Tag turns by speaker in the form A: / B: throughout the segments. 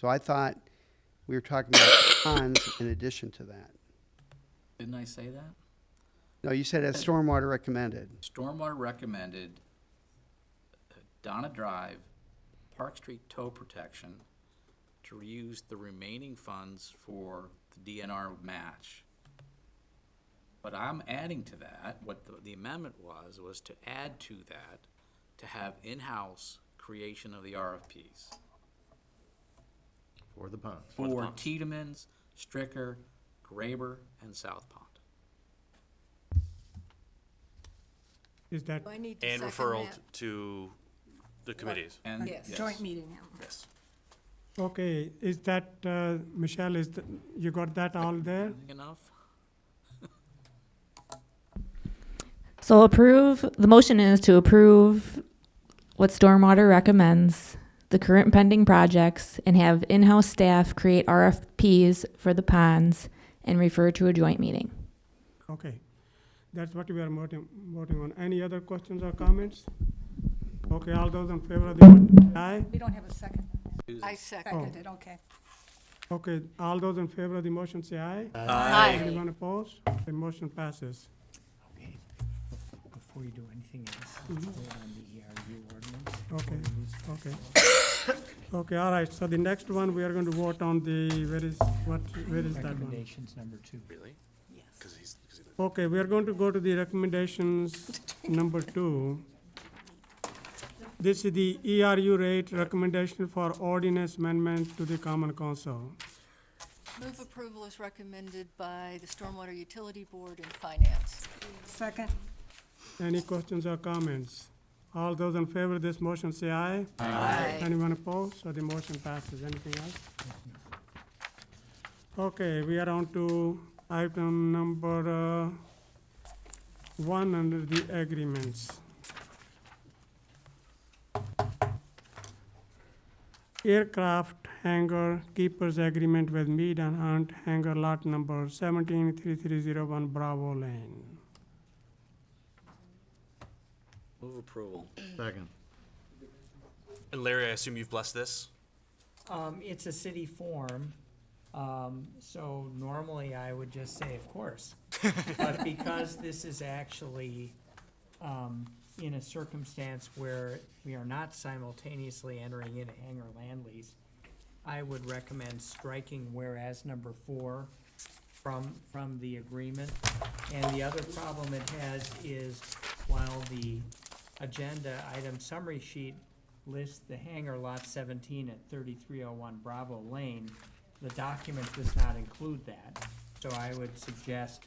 A: So I thought we were talking about ponds in addition to that.
B: Didn't I say that?
A: No, you said as stormwater recommended.
B: Stormwater recommended uh, Donna Drive, Park Street tow protection, to reuse the remaining funds for the DNR match. But I'm adding to that, what the- the amendment was, was to add to that, to have in-house creation of the RFPs.
C: For the ponds.
B: For Tiedemann's, Stricker, Graber, and South Pond.
D: Is that,
E: Do I need to
F: And
E: second
F: referral
E: that?
F: t- to the committees.
B: And,
E: Yes.
B: yes,
G: Joint meeting.
B: yes.
D: okay, is that, uh, Michelle, is, th- you got that all there?
B: Enough?
H: So approve, the motion is to approve what Stormwater recommends, the current pending projects, and have in-house staff create RFPs for the ponds and refer to a joint meeting.
D: Okay. That's what we are voting, voting on. Any other questions or comments? Okay, all those in favor of the motion, say aye.
G: We don't have a second.
E: I second
G: Seconded,
E: it.
G: okay.
D: Okay, all those in favor of the motion, say aye. Anyone opposed? The motion passes.
I: Before you do anything else, vote on the ERU ordinance.
D: Okay, okay. Okay, all right, so the next one, we are going to vote on the, where is, what, where is that one?
I: Recommendations number two.
F: Really? Because he's, because he's.
D: Okay, we are going to go to the recommendations number two. This is the ERU rate recommendation for ordinance amendment to the Common Council.
E: Move approval is recommended by the Stormwater Utility Board and Finance.
G: Second,
D: Any questions or comments? All those in favor of this motion say aye.
E: Aye.
D: Anyone opposed? So the motion passes. Anything else? Okay, we are on to item number uh, one under the agreements. Aircraft hangar keepers agreement with Mead and Hunt hangar lot number 173301 Bravo Lane.
B: Move approval.
C: Second.
F: And Larry, I assume you've blessed this?
I: Um, it's a city form, um, so normally I would just say, of course. But because this is actually, um, in a circumstance where we are not simultaneously entering in a hangar land lease, I would recommend striking whereas number four from, from the agreement. And the other problem it has is while the agenda item summary sheet lists the hangar lot seventeen at thirty-three oh one Bravo Lane, the document does not include that. So I would suggest,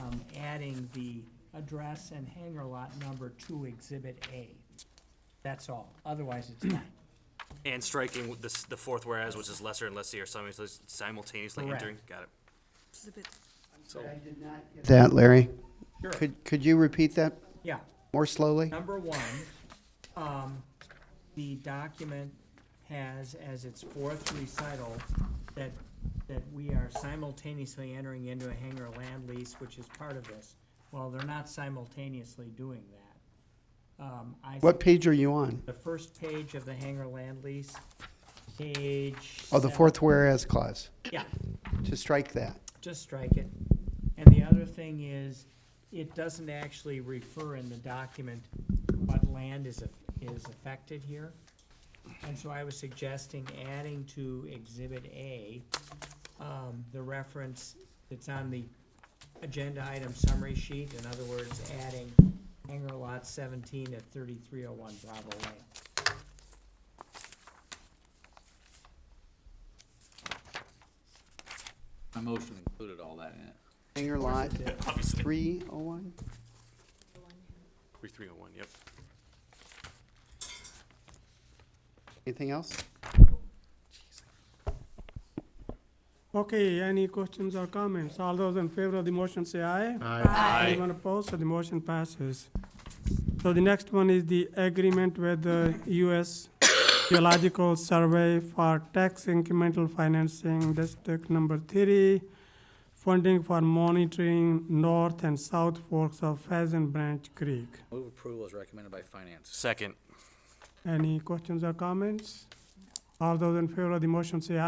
I: um, adding the address and hangar lot number to Exhibit A. That's all, otherwise it's not.
F: And striking with this, the fourth whereas, which is lesser and lessee are simultaneously- simultaneously
I: Correct.
F: entering. Got it.
A: That, Larry?
I: Sure.
A: Could, could you repeat that
I: Yeah.
A: more slowly?
I: Number one, um, the document has as its fourth recital that, that we are simultaneously entering into a hangar land lease, which is part of this. Well, they're not simultaneously doing that. Um, I.
A: What page are you on?
I: The first page of the hangar land lease, page.
A: Oh, the
I: seven.
A: fourth whereas clause,
I: Yeah,
A: to strike that.
I: just strike it. And the other thing is, it doesn't actually refer in the document what land is, aff- is affected here. And so I was suggesting adding to Exhibit A, um, the reference that's on the agenda item summary sheet, in other words, adding hangar lot seventeen at thirty-three oh one Bravo Lane.
B: My motion included all that in it.
A: Hangar lot
F: Obviously.
A: 301?
F: Three, three oh one, yep.
A: Anything else?
D: Okay, any questions or comments? All those in favor of the motion say aye. Anyone opposed? So the motion passes. So the next one is the agreement with the U.S. Geological Survey for Tax Incremental Financing District Number Three, funding for monitoring north and south forks of Pheasant Branch Creek.
B: Move approval is recommended by finance.
F: Second.
D: Any questions or comments? All those in favor of the motion say aye.